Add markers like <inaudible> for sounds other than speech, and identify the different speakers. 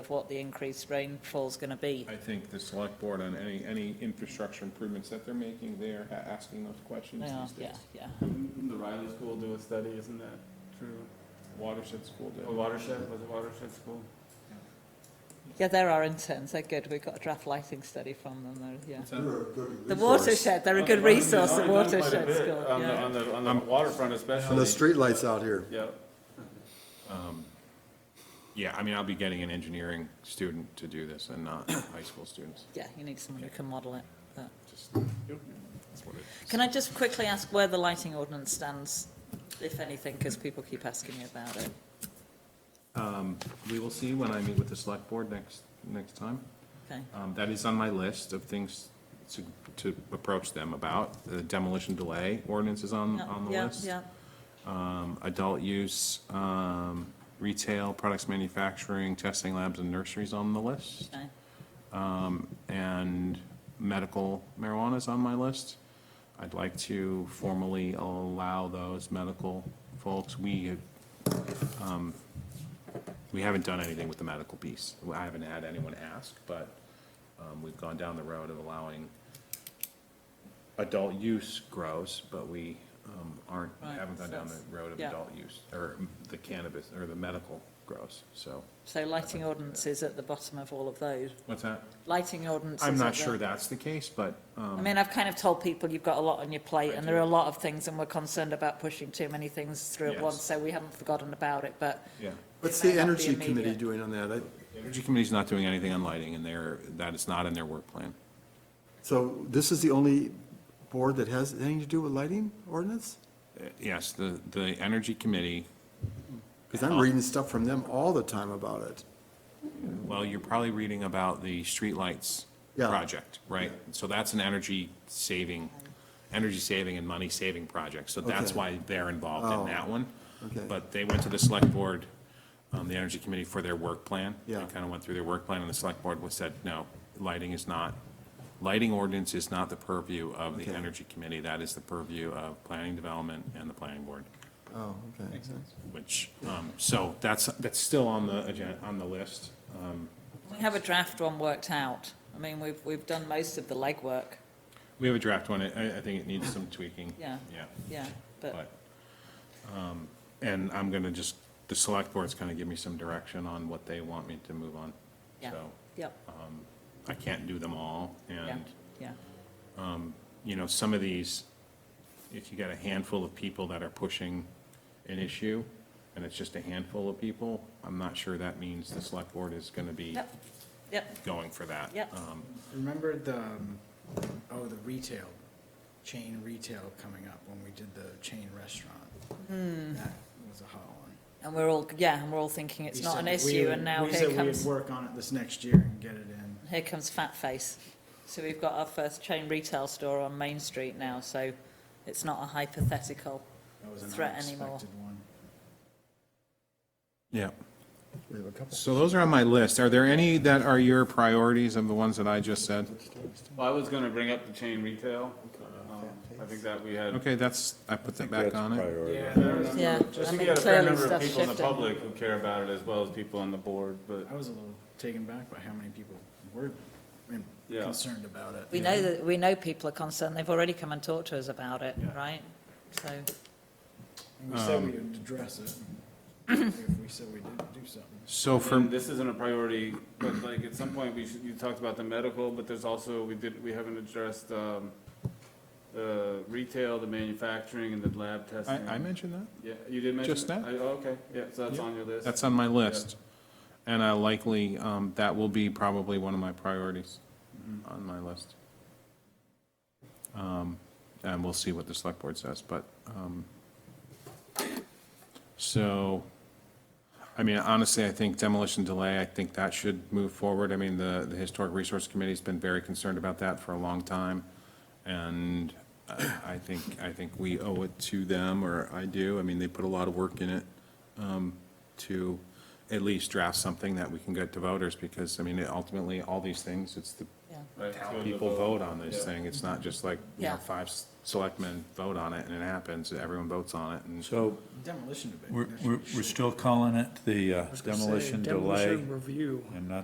Speaker 1: what the increased rainfall's going to be.
Speaker 2: I think the select board on any, any infrastructure improvements that they're making, they're a- asking those questions
Speaker 1: Yeah,
Speaker 2: these
Speaker 1: yeah,
Speaker 2: days.
Speaker 1: yeah.
Speaker 3: Didn't The Riley School do a study, isn't that true?
Speaker 2: Watershed School did.
Speaker 3: Or Watershed, was it Watershed School?
Speaker 1: Yeah, they're our interns, they're good. We've got a draft lighting study from them, they're, yeah.
Speaker 3: They're a
Speaker 4: good
Speaker 1: The watershed, they're a good
Speaker 3: Well, they've
Speaker 1: resource, the
Speaker 3: already done quite a
Speaker 1: watershed
Speaker 3: bit
Speaker 1: school,
Speaker 3: On the,
Speaker 1: yeah.
Speaker 3: on the, on
Speaker 2: Um,
Speaker 3: the waterfront
Speaker 4: And the
Speaker 3: especially.
Speaker 4: streetlights out here.
Speaker 3: Yeah,
Speaker 2: Yeah, I mean, I'll be getting an engineering student to do this and not <coughs> high school students,
Speaker 1: Yeah, you need someone who can model it. but-
Speaker 2: just, that's what it is.
Speaker 1: Can I just quickly ask where the lighting ordinance stands, if anything, because people keep asking me about it?
Speaker 2: We will see when I meet with the select board next, next time.
Speaker 1: Okay,
Speaker 2: Um, That is on my list of things to, to approach them about. The demolition delay ordinance is on,
Speaker 1: Yeah,
Speaker 2: on the
Speaker 1: yeah,
Speaker 2: list.
Speaker 1: yeah.
Speaker 2: Um, Adult use, um, retail, products manufacturing, testing labs and nurseries on the list.
Speaker 1: okay.
Speaker 2: and medical marijuana is on my list. I'd like to formally allow those medical folks. We, have, um, we haven't done anything with the medical piece. I haven't had anyone ask, but um, we've gone down the road of allowing adult use grows, but we um, aren't,
Speaker 1: Right,
Speaker 2: haven't gone down the road of
Speaker 1: yeah.
Speaker 2: adult use, or the cannabis, or the medical grows, so.
Speaker 1: So lighting ordinance is at the bottom of all of those.
Speaker 2: What's that?
Speaker 1: Lighting ordinance.
Speaker 2: I'm
Speaker 1: is
Speaker 2: not
Speaker 1: at the-
Speaker 2: sure that's the case, but um,
Speaker 1: I mean, I've kind of told people you've got a lot on your plate and there are a lot of things and we're concerned about pushing too many things through at
Speaker 2: Yes.
Speaker 1: once, so we haven't forgotten about it, but
Speaker 2: yeah.
Speaker 4: What's
Speaker 1: It may
Speaker 4: the
Speaker 1: not be
Speaker 4: energy committee
Speaker 1: immediate.
Speaker 4: doing on that? I-
Speaker 2: Energy Committee's not doing anything on lighting, and they're, that is not in their work plan.
Speaker 4: So this is the only board that has anything to do with lighting ordinance?
Speaker 2: Uh, Yes, the, the Energy Committee,
Speaker 4: Because
Speaker 1: Oh.
Speaker 4: I'm reading stuff from them all the time about it.
Speaker 2: well, you're probably reading about the streetlights
Speaker 4: Yeah.
Speaker 2: project, right? So that's an energy saving, energy saving and money saving project, so that's
Speaker 4: Okay.
Speaker 2: why they're involved in
Speaker 4: Oh,
Speaker 2: that one.
Speaker 4: okay.
Speaker 2: But they went to the Select Board, um, the Energy Committee for their work plan.
Speaker 4: Yeah.
Speaker 2: They kind of went through their work plan, and the Select Board was said, no, lighting is not, lighting ordinance is not the purview of the
Speaker 4: Okay.
Speaker 2: Energy Committee, that is the purview of planning development and the planning board.
Speaker 4: Oh, okay.
Speaker 2: which, um, so that's, that's still on the agenda, on the list. Um,
Speaker 1: we have a draft one worked out. I mean, we've, we've done most of the legwork,
Speaker 2: We have a draft one, I, I think it needs some tweaking.
Speaker 1: Yeah.
Speaker 2: Yeah,
Speaker 1: yeah, but
Speaker 2: but, um, and I'm gonna just, the select board's gonna give me some direction on what they want me to move on.
Speaker 1: Yeah.
Speaker 2: So,
Speaker 1: Yep,
Speaker 2: I can't do them all,
Speaker 1: yeah,
Speaker 2: and,
Speaker 1: yeah,
Speaker 2: you know, some of these, if you got a handful of people that are pushing an issue, and it's just a handful of people, I'm not sure that means the select board is gonna be
Speaker 1: yep, yep,
Speaker 2: going for that.
Speaker 1: Yep.
Speaker 2: Um,
Speaker 5: Remember the, um, oh, the retail, chain retail coming up when we did the chain restaurant?
Speaker 1: Hmm.
Speaker 5: That was a hot one.
Speaker 1: and we're all, yeah, and we're all thinking it's
Speaker 5: We
Speaker 1: not
Speaker 5: said
Speaker 1: an
Speaker 5: that we
Speaker 1: issue,
Speaker 5: would-
Speaker 1: and now
Speaker 5: We said
Speaker 1: here
Speaker 5: we would
Speaker 1: comes,
Speaker 5: work on it this next year and get it in.
Speaker 1: here comes Fat Face. So we've got our first chain retail store on Main Street now, so it's not a hypothetical.
Speaker 5: That was an
Speaker 1: Threat anymore.
Speaker 5: unexpected one.
Speaker 2: Yeah.
Speaker 4: We have a couple.
Speaker 2: So those are on my list. Are there any that are your priorities of the ones that I just said?
Speaker 3: well, I was gonna bring up the chain retail, um, I think that we had.
Speaker 2: Okay, that's, I put that back on it.
Speaker 3: Yeah, there was-
Speaker 1: Yeah, I
Speaker 3: I think
Speaker 1: mean,
Speaker 3: you got a fair
Speaker 1: clearly
Speaker 3: number of
Speaker 1: stuff's
Speaker 3: people in the
Speaker 1: shifting.
Speaker 3: public who care about it as well as people on the board, but
Speaker 5: I was a little taken back by how many people were I mean,
Speaker 3: Yeah.
Speaker 5: concerned about it.
Speaker 1: We know that, we know people are concerned, they've already come and talked to us about it,
Speaker 5: Yeah.
Speaker 1: right? So,
Speaker 5: And we said we
Speaker 6: Um,
Speaker 5: would
Speaker 1: <coughs>
Speaker 5: address it, if we said we didn't do something.
Speaker 2: So
Speaker 3: And
Speaker 2: for,
Speaker 3: This isn't a priority, but like at some point, we should, you talked about the medical, but there's also, we did, we haven't addressed, um, the retail, the manufacturing and the lab
Speaker 2: I,
Speaker 3: testing.
Speaker 2: I mentioned that?
Speaker 3: Yeah, you did mention.
Speaker 2: Just
Speaker 3: it?
Speaker 2: now.
Speaker 3: I- oh, Okay, yeah, so that's on your list.
Speaker 2: That's on my list. And I likely, um, that will be probably one of my priorities on my list. Um, And we'll see what the select board says, but, um, so, I mean, honestly, I think demolition delay, I think that should move forward. I mean, the, the Historic Resource Committee's been very concerned about that for a long time. And uh, I think, I think we owe it to them, or I do. I mean, they put a lot of work in it um, to at least draft something that we can get to voters, because, I mean, ultimately, all these things, it's the
Speaker 1: yeah,
Speaker 3: Right, so the
Speaker 2: people
Speaker 3: vote.
Speaker 2: vote on this
Speaker 3: Yeah.
Speaker 2: thing. It's not just like, you
Speaker 1: Yeah.
Speaker 2: know, five s- selectmen vote on it, and it happens, everyone votes on it, and
Speaker 6: So
Speaker 5: Demolition debate.
Speaker 6: we're,
Speaker 5: that should
Speaker 6: we're
Speaker 5: be
Speaker 6: we're
Speaker 5: short.
Speaker 6: still calling it the uh, demolition delay
Speaker 7: Demolition review.
Speaker 6: and not